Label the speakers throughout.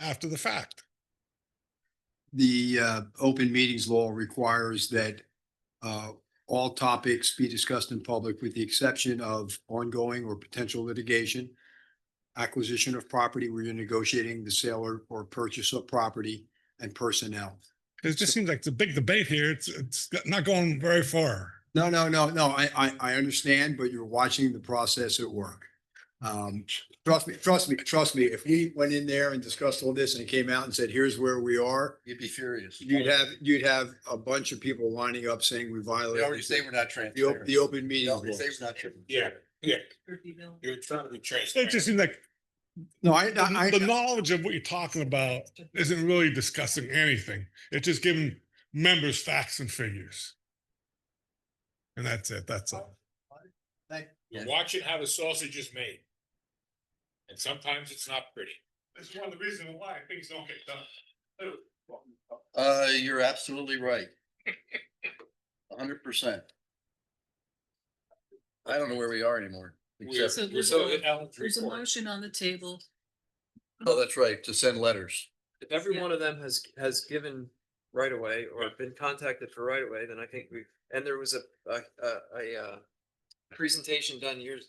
Speaker 1: after the fact.
Speaker 2: The uh, open meetings law requires that uh, all topics be discussed in public with the exception of ongoing or potential litigation, acquisition of property where you're negotiating the sale or- or purchase of property and personnel.
Speaker 1: It just seems like the big debate here. It's, it's not going very far.
Speaker 2: No, no, no, no, I, I, I understand, but you're watching the process at work. Um, trust me, trust me, trust me, if we went in there and discussed all this and came out and said, here's where we are,
Speaker 3: You'd be furious.
Speaker 2: you'd have, you'd have a bunch of people lining up saying we
Speaker 3: They already
Speaker 2: violated
Speaker 3: say we're not
Speaker 2: the, op-
Speaker 3: transparent.
Speaker 2: the open
Speaker 3: They
Speaker 2: meeting.
Speaker 3: already say we're not transparent.
Speaker 4: Yeah, yeah. You're trying to be
Speaker 1: It just seems like
Speaker 2: No, I,
Speaker 1: the
Speaker 2: I,
Speaker 1: the
Speaker 2: I-
Speaker 1: knowledge of what you're talking about isn't really discussing anything. It's just giving members facts and figures. And that's it. That's all.
Speaker 3: Yeah.
Speaker 4: Watching how the sausage is made. And sometimes it's not pretty. That's one of the reasons why things don't get done.
Speaker 3: Uh, you're absolutely right. A hundred percent. I don't know where we are anymore. Except,
Speaker 5: So there's
Speaker 4: So
Speaker 5: a-
Speaker 4: in Ellen's
Speaker 5: There's a
Speaker 4: report,
Speaker 5: motion on the table.
Speaker 3: oh, that's right, to send letters.
Speaker 6: If every
Speaker 5: Yeah.
Speaker 6: one of them has, has given right away or been contacted for right away, then I think we, and there was a, a, a, a, uh, presentation done years,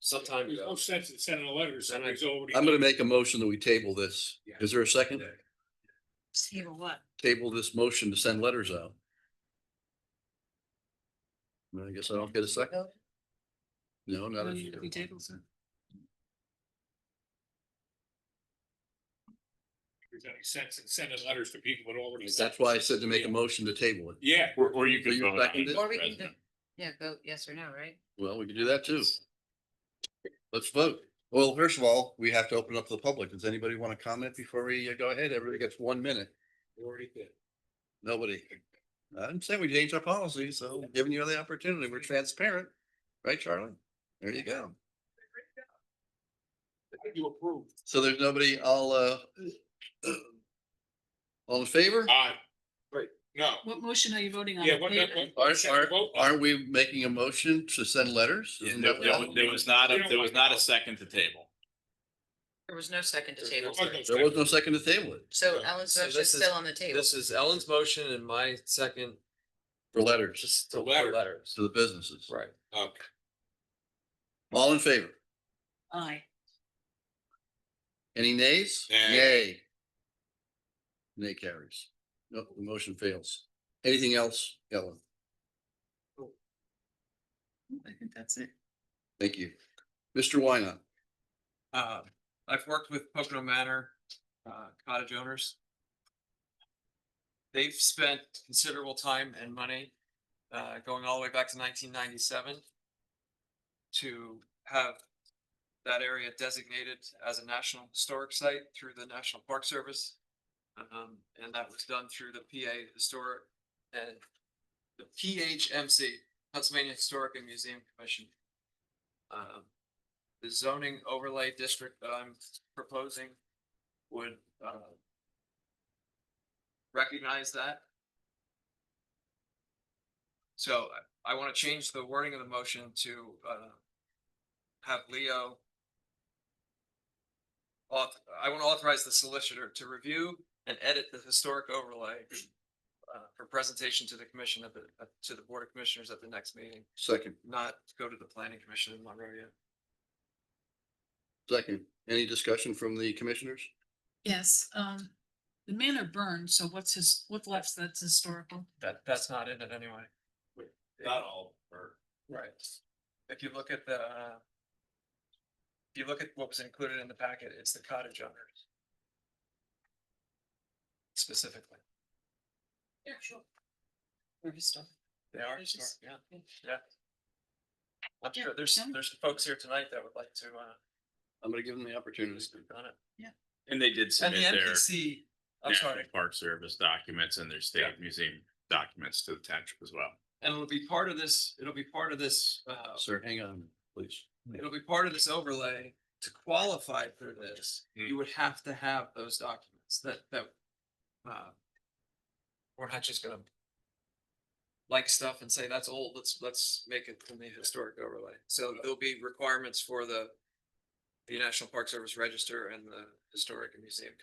Speaker 6: sometime
Speaker 4: there's no
Speaker 6: ago.
Speaker 4: sense in sending a letter to somebody who's already.
Speaker 3: I'm gonna make a motion that we table this.
Speaker 4: Yeah.
Speaker 3: Is there a second?
Speaker 5: Table what?
Speaker 3: Table this motion to send letters out. I guess I don't get a second? No, not.
Speaker 5: Motion
Speaker 3: if-
Speaker 5: to be tabled, sir.
Speaker 4: There's any sense in sending letters to people that already.
Speaker 3: That's why I said to make a motion to table it.
Speaker 4: Yeah.
Speaker 7: Or, or you
Speaker 3: So
Speaker 7: could
Speaker 3: you
Speaker 7: vote on
Speaker 3: second
Speaker 7: it.
Speaker 3: it?
Speaker 5: Or we can, go- yeah, vote yes or no, right?
Speaker 3: Well, we can do that too. Let's vote. Well, first of all, we have to open up to the public. Does anybody want to comment before we uh, go ahead? Everybody gets one minute.
Speaker 4: Already did.
Speaker 3: Nobody. I didn't say we changed our policy, so giving you the opportunity, we're transparent, right, Charlie? There you go.
Speaker 4: You approved.
Speaker 3: So there's nobody, I'll, uh, all in favor?
Speaker 4: Aye. Right, no.
Speaker 5: What motion are you voting on?
Speaker 4: Yeah,
Speaker 5: The
Speaker 4: what,
Speaker 5: table?
Speaker 4: what-
Speaker 3: Are,
Speaker 4: what, should we
Speaker 3: are,
Speaker 4: vote on?
Speaker 3: are we making a motion to send letters?
Speaker 7: Yeah,
Speaker 3: Isn't
Speaker 7: There,
Speaker 3: that
Speaker 7: there
Speaker 3: what-
Speaker 7: was- there was not,
Speaker 4: We
Speaker 7: a
Speaker 4: don't
Speaker 7: there was
Speaker 4: like
Speaker 7: not a
Speaker 4: those.
Speaker 7: second to table.
Speaker 5: There was no second to table.
Speaker 4: There was no
Speaker 5: sir.
Speaker 3: There was no second to table it
Speaker 5: So
Speaker 4: So
Speaker 5: Alan's
Speaker 6: this
Speaker 5: motion is
Speaker 6: is-
Speaker 5: still on the table.
Speaker 6: This is Ellen's motion and my second,
Speaker 3: for letters
Speaker 6: just to
Speaker 4: letter.
Speaker 6: letters.
Speaker 3: to the businesses.
Speaker 6: Right.
Speaker 7: Oh,
Speaker 4: Okay.
Speaker 3: All in favor?
Speaker 5: Aye.
Speaker 3: Any nays?
Speaker 4: Nay.
Speaker 3: Nay. Nay carries. No, the motion fails. Anything else, Ellen?
Speaker 5: I think that's it.
Speaker 3: Thank you. Mr. Wynot,
Speaker 6: Uh, I've worked with Pocono Manor uh, cottage owners. They've spent considerable time and money, uh, going all the way back to nineteen ninety-seven to have that area designated as a national historic site through the National Park Service. Um, and that was done through the PA Historic and the PHMC, Pennsylvania Historic and Museum Commission. Um, the zoning overlay district that I'm proposing would, uh, recognize that. So I, I want to change the wording of the motion to, uh, have Leo auth- I want to authorize the solicitor to review and edit the historic overlay uh, for presentation to the commission at the, uh, to the Board of Commissioners at the next meeting,
Speaker 3: second,
Speaker 6: not go to the planning commission in Monrovia.
Speaker 3: second. Any discussion from the commissioners?
Speaker 5: Yes, um, the manor burned, so what's his, what left that's historical?
Speaker 6: That, that's not in it anyway.
Speaker 7: Not all, or
Speaker 6: Right. If you look at the, uh, if you look at what was included in the packet, it's the cottage owners. Specifically,
Speaker 5: Yeah, sure. Or historic.
Speaker 6: they are,
Speaker 5: There's just-
Speaker 6: historic, yeah, yeah. I'm
Speaker 5: Yeah,
Speaker 6: sure there's,
Speaker 5: done.
Speaker 6: there's folks here tonight that would like to, uh,
Speaker 3: I'm gonna give them the opportunity.
Speaker 6: speak on it.
Speaker 7: and they did
Speaker 6: And
Speaker 7: submit
Speaker 6: the
Speaker 7: their
Speaker 6: NPC, I'm sorry,
Speaker 7: National Park Service documents and their state museum documents to the township as well.
Speaker 6: and it'll be part of this, it'll be part of this, uh,
Speaker 3: Sir, hang on, please.
Speaker 6: it'll be part of this overlay. To qualify for this, you would have to have those documents that, that, uh, we're not just gonna like stuff and say, that's old, let's, let's make it from the historic overlay. So there'll be requirements for the the National Park Service Register and the Historic and Museum